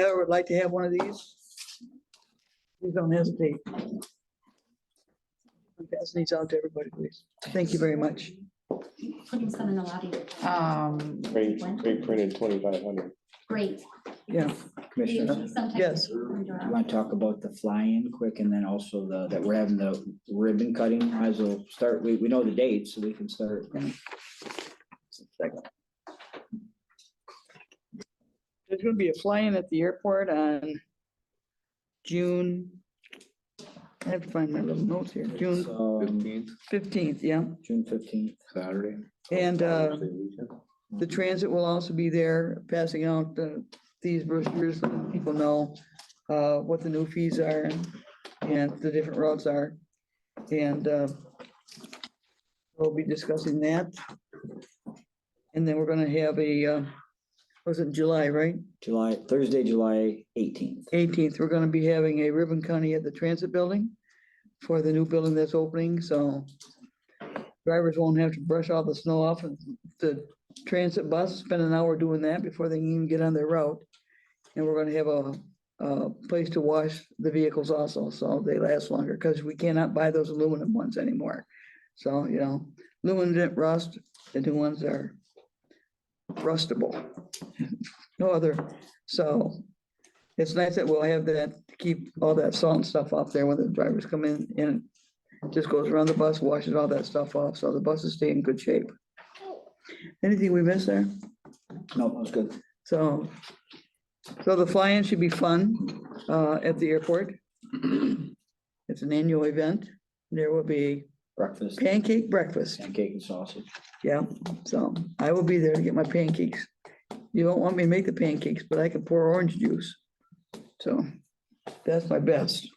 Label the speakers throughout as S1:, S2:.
S1: ever would like to have one of these? Please don't hesitate. Pass these out to everybody, please. Thank you very much.
S2: putting some in the lobby.
S1: Uh,
S3: Um,
S4: They, they printed twenty-five hundred.
S2: Great.
S1: Yeah,
S2: They
S5: Commissioner,
S2: usually sometimes
S1: Yes.
S2: wander
S5: I
S2: out.
S5: want to talk about the fly-in quick and then also the, that we're having the ribbon cutting. Might as well start, we, we know the date, so we can start.
S3: there's gonna be a fly-in at the airport on June.
S1: I have to find my little notes here.
S5: It's,
S1: June
S5: um,
S6: Fifteenth,
S1: fifteenth, yeah.
S5: June fifteenth.
S6: Saturday.
S1: And, uh,
S6: Thursday weekend.
S1: The transit will also be there passing out the, these brochures, so that people know, uh, what the new fees are and, and the different routes are. And, uh, we'll be discussing that. And then we're gonna have a, uh, was it July, right?
S5: July, Thursday, July eighteenth.
S1: Eighteenth, we're gonna be having a ribbon cutting at the transit building for the new building that's opening, so drivers won't have to brush all the snow off of the transit bus, spend an hour doing that before they can even get on their route. And we're gonna have a, a place to wash the vehicles also, so they last longer, because we cannot buy those aluminum ones anymore. So, you know, aluminum didn't rust, the new ones are rustable. No other, so it's nice that we'll have that, to keep all that salt and stuff off there when the drivers come in and it just goes around the bus, washes all that stuff off, so the buses stay in good shape. Anything we missed there?
S5: No, that was good.
S1: So, so the fly-in should be fun uh, at the airport. It's an annual event. There will be
S5: Breakfast,
S1: pancake breakfast.
S5: pancake and sausage.
S1: Yeah, so I will be there to get my pancakes. You don't want me to make the pancakes, but I can pour orange juice. So that's my best.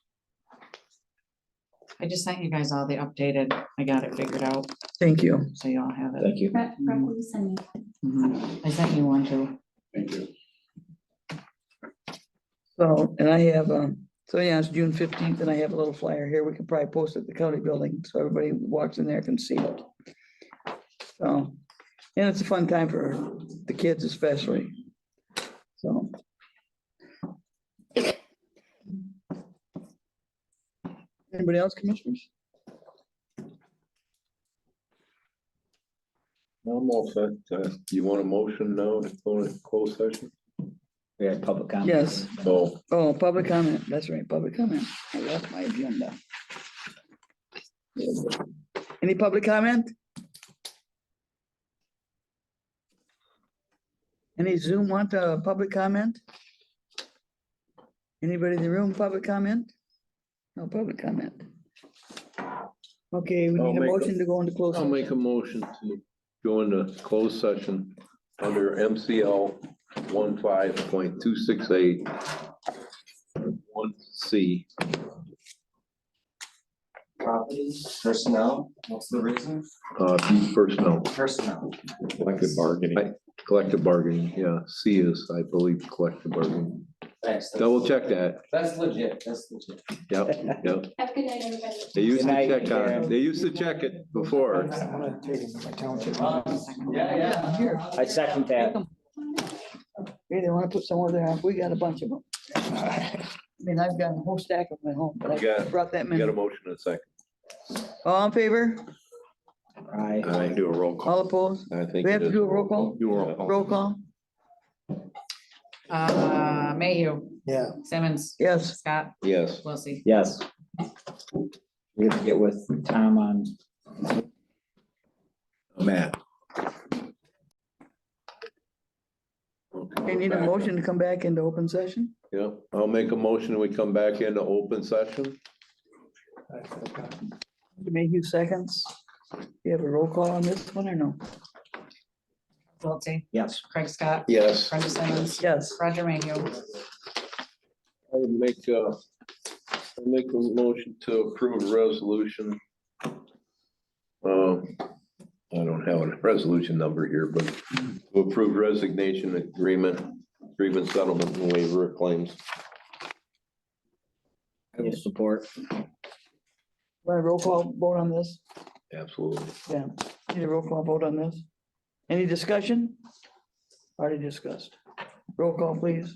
S3: I just sent you guys all the updated, I got it figured out,
S1: Thank you.
S3: so you all have it. Mm-hmm.
S5: Thank you.
S2: Rep, Rep, will you send me?
S3: I sent you one too.
S6: Thank you.
S1: So, and I have, um, so yeah, it's June fifteenth and I have a little flyer here. We could probably post it at the county building, so everybody who walks in there can see it. So, and it's a fun time for the kids especially. So. Anybody else, commissioners?
S6: I'm all set. Uh, You want a motion now to go to closed session?
S5: We had public comment.
S1: Yes.
S6: No.
S1: Oh, public comment. That's right, public comment. I left my agenda. Any public comment? Any Zoom want a public comment? Anybody in the room, public comment? No public comment. Okay, we
S6: I'll
S1: need a
S6: make a-
S1: motion to go into closed.
S6: I'll make a motion to go into closed session under MCL one one C.
S7: property, personnel, what's the reason?
S6: Uh, personnel,
S7: Personnel.
S4: collective bargaining.
S6: collective bargaining, yeah, C is, I believe, collective bargaining.
S7: Thanks, that's-
S6: Double check that,
S7: That's legit, that's legit.
S6: yep, yep.
S2: Have a good night, everybody.
S6: They used to
S5: Good night,
S6: check on, it.
S5: Karen.
S6: they used to check it before.
S7: Yeah, yeah.
S1: Here.
S5: I second that.
S1: Hey, they wanna put some over there. We got a bunch of them. I mean, I've got a whole stack of them at home, but I
S6: Yeah.
S1: brought that
S6: We
S1: many.
S6: got a motion in a second.
S1: All in favor?
S5: Aye.
S6: I do a roll call.
S1: All opposed?
S6: I think.
S1: We
S6: it
S1: have to
S6: is.
S1: do a roll call?
S6: Do a roll call.
S1: Roll call?
S3: Uh, Mayhew. Yeah. Simmons,
S1: Yes.
S3: Scott,
S6: Yes.
S3: Wiltie.
S5: Yes. We have to get with Tom on
S6: Matt.
S1: They need a motion to come back into open session?
S6: Yeah, I'll make a motion and we come back into open session.
S1: Mayhew seconds. You have a roll call on this one or no?
S3: Wiltie,
S5: Yes.
S3: Craig Scott,
S6: Yes.
S3: Brenda Simmons,
S1: Yes.
S3: Roger Mayhew.
S6: I would make, uh, I'd make a motion to approve a resolution. Um, I don't have a resolution number here, but to approve resignation agreement, agreement settlement and waiver of claims.
S5: I will support.
S1: Want a roll call vote on this?
S6: Absolutely.
S1: Yeah. Need a roll call vote on this? Any discussion? Already discussed. Roll call, please.